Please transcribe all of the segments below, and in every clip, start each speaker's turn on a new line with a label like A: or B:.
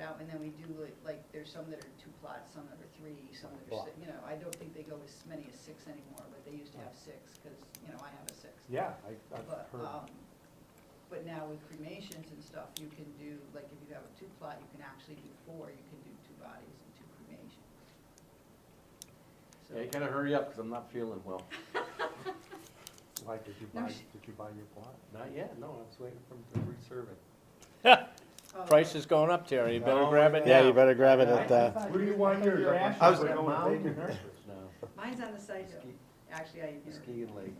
A: out, and then we do, like- like, there's some that are two plots, some that are three, some that are,
B: Plot.
A: si- you know, I don't think they go as many as six anymore, but they used to have six, because, you know, I have a six.
B: Yeah, I, I've
A: But,
B: heard,
A: um, but now with cremations and stuff, you can do, like, if you have a two plot, you can actually do four, you can do two bodies and two cremations.
C: Yeah, you
A: So,
C: gotta hurry up, because I'm not feeling well.
B: why, did you
A: No,
B: buy,
A: she-
B: did you buy your plot?
C: Not yet, no, I was waiting for him to reserve it.
A: oh,
D: Price is going up, Terry, you better
C: No,
D: grab it
B: yeah.
D: now.
E: Yeah, you better grab it
B: Yeah,
E: at,
B: I- I
E: uh,
B: thought
C: Who do you want
B: I thought
C: your
B: were
C: draft?
B: asking
E: I was
B: for
E: gonna
B: going
C: mound
B: vacant.
C: nurseries now.
A: Mine's on the side hill,
C: Ski-
A: actually, I, you know,
C: Ski and lake.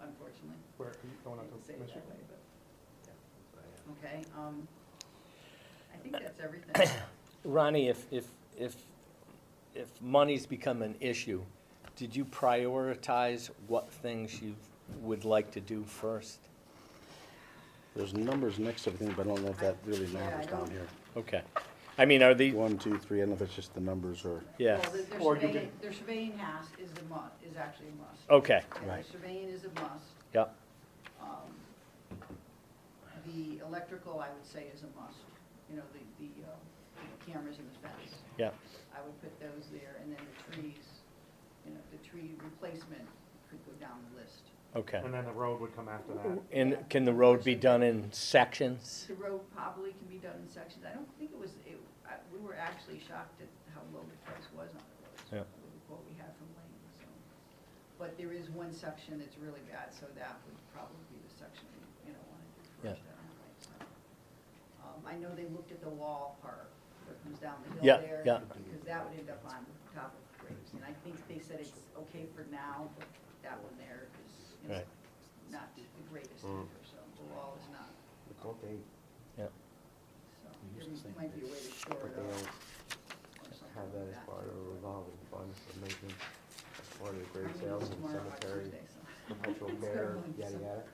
A: unfortunately,
B: Where, are you going
A: I
B: out
A: didn't say
B: to
A: it
B: Michigan?
A: that way, but.
C: That's what I have.
A: Okay, um, I think that's everything.
D: Ronnie, if, if, if, if money's become an issue, did you prioritize what things you would like to do first?
E: there's numbers next to everything, but I don't know if that really matters down here.
D: Okay, I mean, are the,
E: One, two, three, I don't know if it's just the numbers or,
D: yeah,
A: Well, the- their
B: Or you
A: surveying, their surveying has is a must, is actually a must.
D: okay,
A: Yeah, their
E: Right.
A: Surveying is a must.
D: yeah,
A: Um, The electrical, I would say, is a must, you know, the, the uh, the cameras and the fence.
D: yeah,
A: I would put those there, and then the trees, you know, the tree replacement could go down the list.
D: okay.
B: And then the road would come after that.
D: And can the road be done in sections?
A: The road probably can be done in sections. I don't think it was, it, I, we were actually shocked at how low the price was on the roads.
D: Yeah.
A: with What we had from Lane, so. But there is one section that's really bad, so that would probably be the section we, you know, wanna do first. I
D: Yeah.
A: don't think so. Um, I know they looked at the wall part, that comes down the
D: Yeah,
A: hill there.
D: yeah.
A: Because that would end up on top of graves, and I think they said it's okay for now, but that one there is, you know,
D: Right. Mm.
A: not the greatest either, so the wall is not
C: But Don't they,
D: Yeah,
A: so
E: We
A: there
E: used to think
A: might be a way to shore
C: but
A: it
C: they
A: up
C: don't
A: or something
C: have that as
A: like that.
C: part of a revolving fund for making, as part of the
A: I'm
C: grave
A: gonna
C: sales
A: go
C: and
A: tomorrow, it's
C: cemetery,
A: Tuesday, so-
C: perpetual
A: It's
C: care,
A: gonna be
C: yada,
A: some-
C: yada.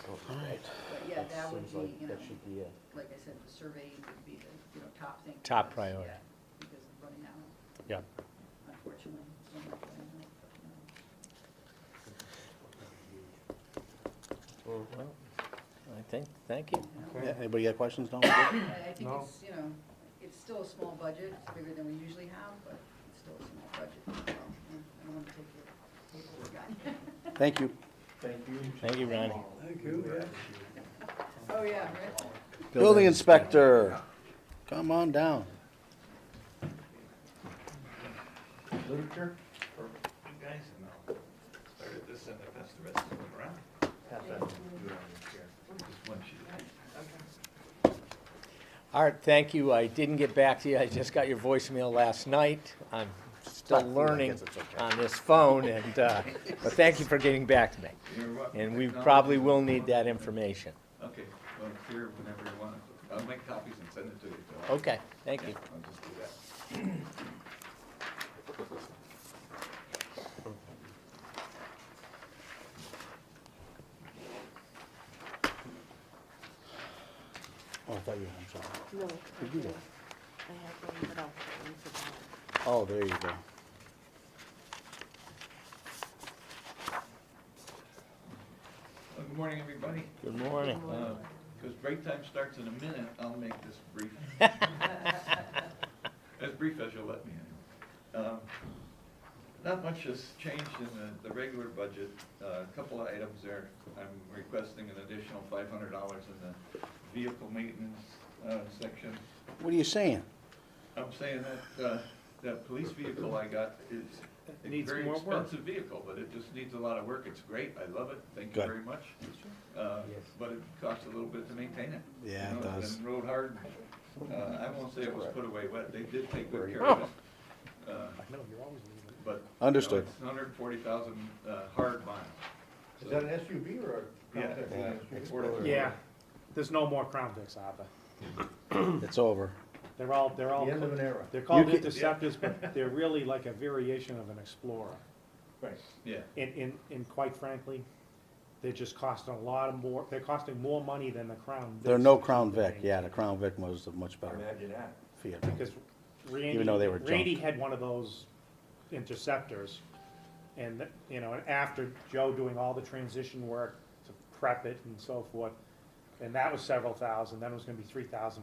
C: So
A: But yeah,
C: that
A: that would
C: seems like
A: be, you know,
C: That should be a,
A: like I said, the surveying would be the, you know, top thing. for
D: Top
A: us,
D: priority.
A: yeah, Because of running out,
D: yeah.
A: unfortunately. it's gonna be running out, but, you know.
D: Well, I think, thank you.
A: You know,
E: Yeah, anybody got questions, no?
A: I I think
B: No.
A: it's, you know, it's still a small budget, it's bigger than we usually have, but it's still a small budget. so, you know, I don't want to take your paperwork on you.
E: Thank you.
D: Thank you, Ronnie.
A: Oh, yeah, right?
E: Building inspector, come on down.
C: literature,
F: You guys know, started this and I passed the rest of them around.
C: pass that to you on this here.
F: Just one sheet.
D: Art, thank you, I didn't get back to you, I just got your voicemail last night. I'm still learning
E: guess it's okay.
D: on this phone, and, uh, but thank you for getting back to me.
F: You're welcome.
D: And we probably will need that information.
F: Okay, well, it's here whenever you want. I'll make copies and send it to you. so I'll-
C: Oh,
D: Okay, thank you.
F: Yeah, I'll just do that.
E: Oh, I thought you, I'm sorry.
G: No.
E: Did you do?
G: I have one, but I'll put one for Bob.
E: Oh, there you go.
F: Well, Good morning, everybody.
D: Good morning.
F: Because Uh, break time starts in a minute, I'll make this brief. As brief as you'll let me. anyway. Um, Not much has changed in the, the regular budget. Uh, A couple of items there. I'm requesting an additional five hundred dollars in the vehicle maintenance uh, section.
E: What are you saying?
F: I'm saying that, uh, that police vehicle I got is a
C: needs
F: very
C: more work.
F: expensive vehicle, but it just needs a lot of work. It's great. I love it. Thank you
E: Good.
F: very much. Uh, But it costs a little bit to maintain it. you
E: Yeah, it
F: know,
E: does.
F: And rode hard. Uh, I won't say it was put away wet. They did take good care of it. Uh,
B: I know, you're always leaving.
F: But. you know,
E: Understood.
F: It's hundred and forty thousand, uh, hard miles.
C: Is that an SUV or a?
F: Yeah,
C: compact
F: yeah,
C: SUV?
F: Explorer.
B: Yeah, there's no more Crown Vics, Abba.
E: It's over.
B: They're all, they're all,
C: The end of an era.
B: they're called
E: You can-
B: interceptors, but they're really like a variation of an Explorer.
C: Right.
F: Yeah,
B: And, and, and quite frankly, they're just costing a lot of more, they're costing more money than the Crown Vics.
E: There are no
B: which is
E: Crown
B: the
E: Vic,
B: main-
E: yeah, the Crown Vic was a much better
C: Imagine that.
E: Fiat.
B: Because Randy,
E: though they were
B: Randy had one of those interceptors. And, th- you know, and after Joe doing all the transition work to prep it and so forth, and that was several thousand, then it was gonna be three thousand